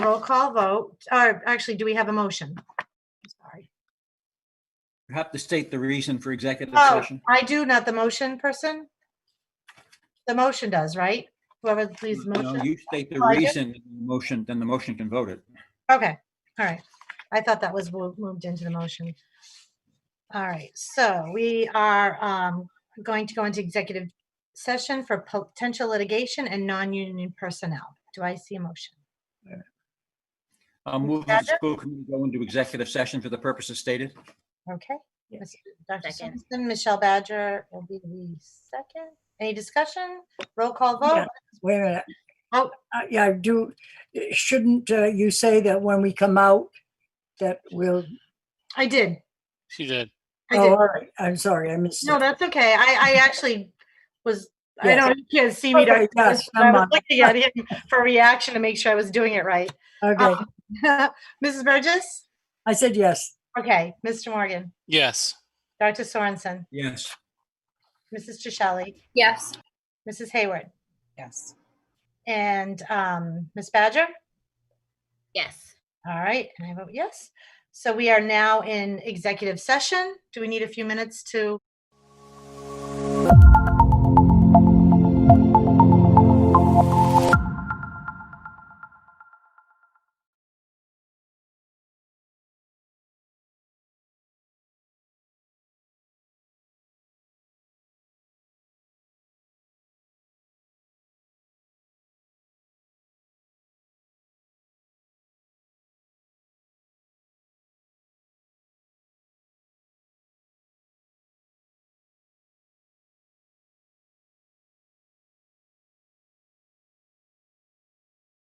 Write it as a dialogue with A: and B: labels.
A: Roll call vote, or actually, do we have a motion? Sorry.
B: You have to state the reason for executive
A: Oh,
B: session.
A: I do, not the motion person? The motion does, right? Whoever please
B: No,
A: motion.
B: you state the
A: Oh, I did?
B: reason, in the motion, then the motion can vote it.
A: Okay, all right. I thought that was mo- moved into the motion. All right, so we are um, going to go into executive session for potential litigation and non-union personnel. Do I see a motion?
B: I'll move that the
A: Second.
B: school committee go into executive session for the purposes stated.
A: Okay.
C: Yes.
A: Ms. Dr.
C: Second.
A: Simpson, Michelle Badger will be the second. Any discussion? Roll call
C: Yeah.
A: vote?
C: Wait a minute.
A: Oh.
C: Uh, Yeah, I do, shouldn't uh, you say that when we come out, that we'll,
A: I did.
D: She did.
A: I
C: oh,
A: did.
C: all right, I'm sorry, I missed
A: No,
C: it.
A: that's okay. I, I actually was, I
C: Yes.
A: don't, you can't see me. Dr.
C: Okay, yes,
A: Simpson, but I
C: never
A: was
C: mind.
A: looking at him for reaction to make sure I was doing it right.
C: Okay,
A: Um, Mrs. Burgess?
C: I said yes.
A: Okay, Mr. Morgan,
D: Yes.
A: Dr. Sorensen,
B: Yes,
A: Mrs. Trishelli,
E: Yes.
A: Mrs. Hayward,
E: Yes.
A: and um, Ms. Badger?
E: Yes.
A: All right, and I vote yes. So we are now in executive session. Do we need a few minutes to?